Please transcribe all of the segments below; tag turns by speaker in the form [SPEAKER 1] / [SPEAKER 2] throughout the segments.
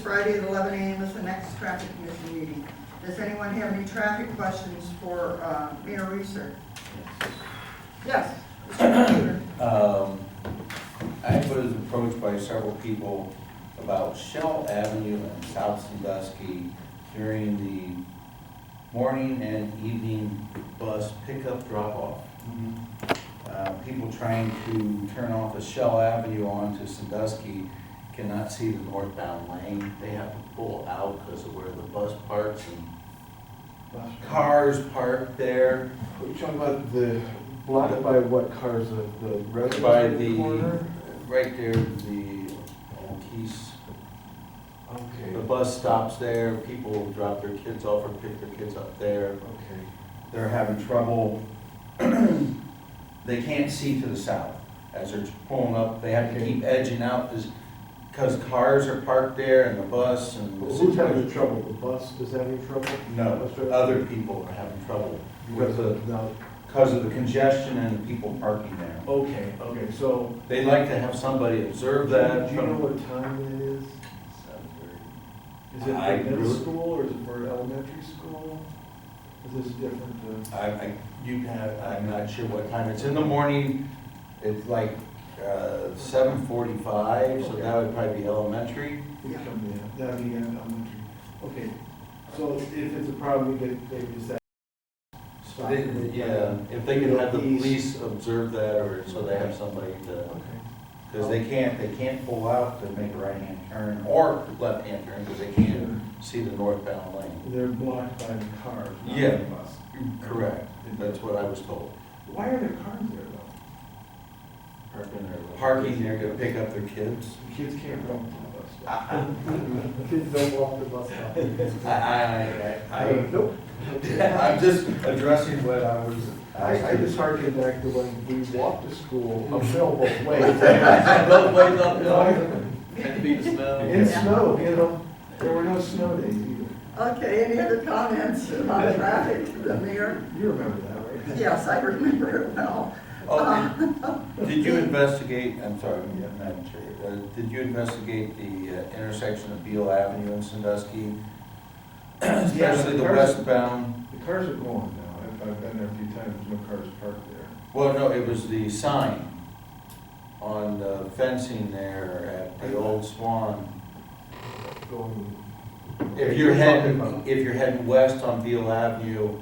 [SPEAKER 1] Friday at eleven AM is the next traffic commission meeting. Does anyone have any traffic questions for uh, Mayor Reeser? Yes. Mr. Computer.
[SPEAKER 2] Um, I was approached by several people about Shell Avenue and South Sandusky during the morning and evening bus pickup drop-off. Uh, People trying to turn off the Shell Avenue onto Sandusky cannot see the northbound lane. They have to pull out because of where the bus parks and cars park there.
[SPEAKER 3] Are you talking about the, blocked by what cars, the the
[SPEAKER 2] By
[SPEAKER 3] residential
[SPEAKER 2] the,
[SPEAKER 3] corner?
[SPEAKER 2] right there, the um, Keys, the
[SPEAKER 3] Okay,
[SPEAKER 2] bus stops there, people drop their kids off or pick their kids up there.
[SPEAKER 3] okay.
[SPEAKER 2] They're having trouble, they can't see to the south as they're pulling up, they have to keep edging out this, because cars are parked there and the bus and. the
[SPEAKER 3] Well, Who's having
[SPEAKER 2] situation-
[SPEAKER 3] trouble? The bus is having trouble?
[SPEAKER 2] No, other people are having trouble
[SPEAKER 3] Because of, no,
[SPEAKER 2] because of the congestion and the people parking there.
[SPEAKER 3] okay, okay, so.
[SPEAKER 2] They'd like to have somebody observe that.
[SPEAKER 3] Do you know what time it is? Is it
[SPEAKER 2] I
[SPEAKER 3] for middle
[SPEAKER 2] really-
[SPEAKER 3] school or is it for elementary school? Is this different, uh,
[SPEAKER 2] I, I, you have, I'm not sure what time, it's in the morning, it's like, uh, seven forty-five, so that would probably be elementary.
[SPEAKER 3] it come in, that'd be in elementary. Okay, so if it's a problem, they, they just have.
[SPEAKER 2] So they- Yeah, Uh, if they could have the police observe that, or so they have somebody to,
[SPEAKER 3] Okay.
[SPEAKER 2] because they can't, they can't pull out to make a right-hand turn or left-hand turn, because they can't see the northbound lane.
[SPEAKER 3] They're blocked by the cars, not
[SPEAKER 2] Yeah.
[SPEAKER 3] the bus.
[SPEAKER 2] Correct, that's what I was told.
[SPEAKER 3] Why are there cars there though?
[SPEAKER 2] Parking there to pick up their kids.
[SPEAKER 3] The Kids can't run the bus. stop.
[SPEAKER 2] I,
[SPEAKER 4] Kids don't walk the bus stop.
[SPEAKER 2] I, I, I,
[SPEAKER 3] Nope.
[SPEAKER 2] I'm just addressing what I was.
[SPEAKER 3] I, I just harken back to when we walked to school,
[SPEAKER 2] Mm-hmm.
[SPEAKER 3] a mill both ways.
[SPEAKER 2] Both ways up,
[SPEAKER 5] Had to be the smell.
[SPEAKER 3] In snow, you know, there were no snow days either.
[SPEAKER 1] Okay, any other comments about traffic, the mayor?
[SPEAKER 3] You remember that, right?
[SPEAKER 1] Yes, I remember it well.
[SPEAKER 2] Oh, did- Did you investigate, I'm sorry, Madam Chair, uh, did you investigate the uh, intersection of Beale Avenue and Sandusky? Especially the
[SPEAKER 3] there's-
[SPEAKER 2] westbound,
[SPEAKER 3] The cars are gone now. I've, I've been there a few times, no cars parked there.
[SPEAKER 2] well, no, it was the sign on the fencing there at the old Swan.
[SPEAKER 3] Going.
[SPEAKER 2] If you're heading, if you're heading west on Beale Avenue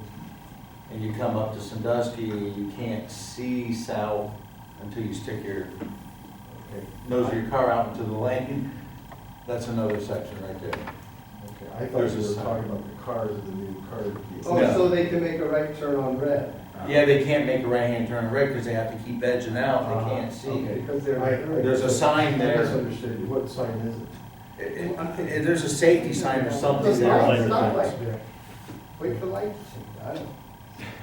[SPEAKER 2] and you come up to Sandusky, you can't see south until you stick your
[SPEAKER 3] Okay,
[SPEAKER 2] nose of your car out into the lane. That's another section right there.
[SPEAKER 3] okay. I thought
[SPEAKER 2] There's a
[SPEAKER 3] you were
[SPEAKER 2] sign.
[SPEAKER 3] talking about the cars, the new car. Ah.
[SPEAKER 4] Oh,
[SPEAKER 2] No.
[SPEAKER 4] so they can make a right turn on red
[SPEAKER 2] Yeah, they can't make a right-hand turn red because they have to keep edging out,
[SPEAKER 3] Uh-huh,
[SPEAKER 2] they can't see.
[SPEAKER 3] okay.
[SPEAKER 4] because they're.
[SPEAKER 3] I-
[SPEAKER 2] There's Ah, a sign
[SPEAKER 3] I
[SPEAKER 2] there,
[SPEAKER 3] misunderstood you. What sign is it?
[SPEAKER 2] It- it- it- there's a safety sign or something
[SPEAKER 4] Those lights, stop
[SPEAKER 2] there.
[SPEAKER 4] lights. Wait for lights. I don't-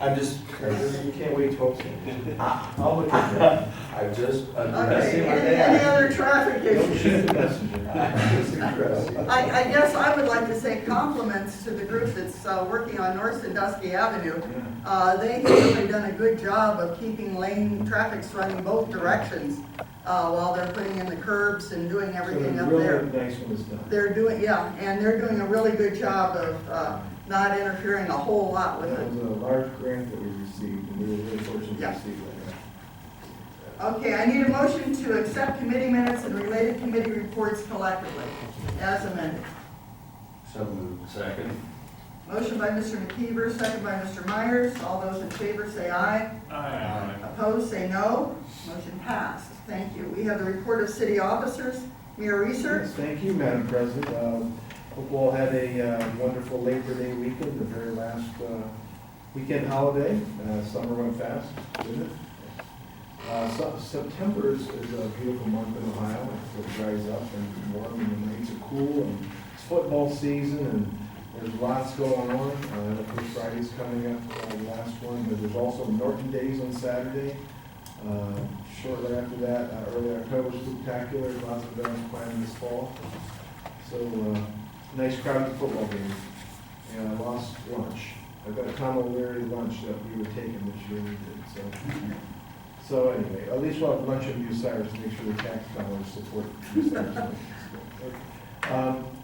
[SPEAKER 2] I'm just,
[SPEAKER 3] You can't wait twelve seconds.
[SPEAKER 2] Ah.
[SPEAKER 3] I'll look at that.
[SPEAKER 2] I'm just
[SPEAKER 1] Uh, Okay,
[SPEAKER 2] addressing what
[SPEAKER 1] any
[SPEAKER 2] they
[SPEAKER 1] any
[SPEAKER 2] asked.
[SPEAKER 1] other traffic
[SPEAKER 3] Don't shoot
[SPEAKER 1] issues?
[SPEAKER 3] the messenger.
[SPEAKER 2] I'm just addressing.
[SPEAKER 1] I, I guess I would like to say compliments to the group that's uh, working on North Sandusky Avenue. Uh, They have really done a good job of keeping lane, traffic's running both directions uh, while they're putting in the curbs and doing everything
[SPEAKER 3] So
[SPEAKER 1] up
[SPEAKER 3] the
[SPEAKER 1] there.
[SPEAKER 3] Really nice one is done.
[SPEAKER 1] They're doing, yeah, and they're doing a really good job of uh, not interfering a whole lot with
[SPEAKER 3] That
[SPEAKER 1] it.
[SPEAKER 3] was a large grant that we received, and we were really fortunate to
[SPEAKER 1] Yeah.
[SPEAKER 3] receive that.
[SPEAKER 1] Okay, I need a motion to accept committee minutes and related committee reports collectively as amended.
[SPEAKER 2] So moved.
[SPEAKER 5] Second.
[SPEAKER 1] Motion by Mr. McKeever, second by Mr. Myers. All those in favor say aye.
[SPEAKER 5] Aye.
[SPEAKER 1] Opposed, say no. Motion passed. Thank you. We have the report of city officers. Mayor Research?
[SPEAKER 3] Yes, Thank you, Madam President. Um, Hope you all had a uh, wonderful Labor Day weekend, the very last uh, weekend holiday. Uh, Summer went fast, didn't it? Uh, so- September is is a beautiful month in Ohio. It dries up and warm and the nights are cool and it's football season and there's lots going on. Uh, The first Friday's coming up, uh, the last one, but there's also Norton Days on Saturday. Uh, Shortly after that, uh, early October, spectacular, lots of events planned this fall. So, uh, nice crowded football game. And I lost lunch. I got a Tom O'Leary lunch that we were taking this year, we did, so. So anyway, at least we'll have lunch in Bucyrus, make sure the tax dollars support Bucyrus. Um,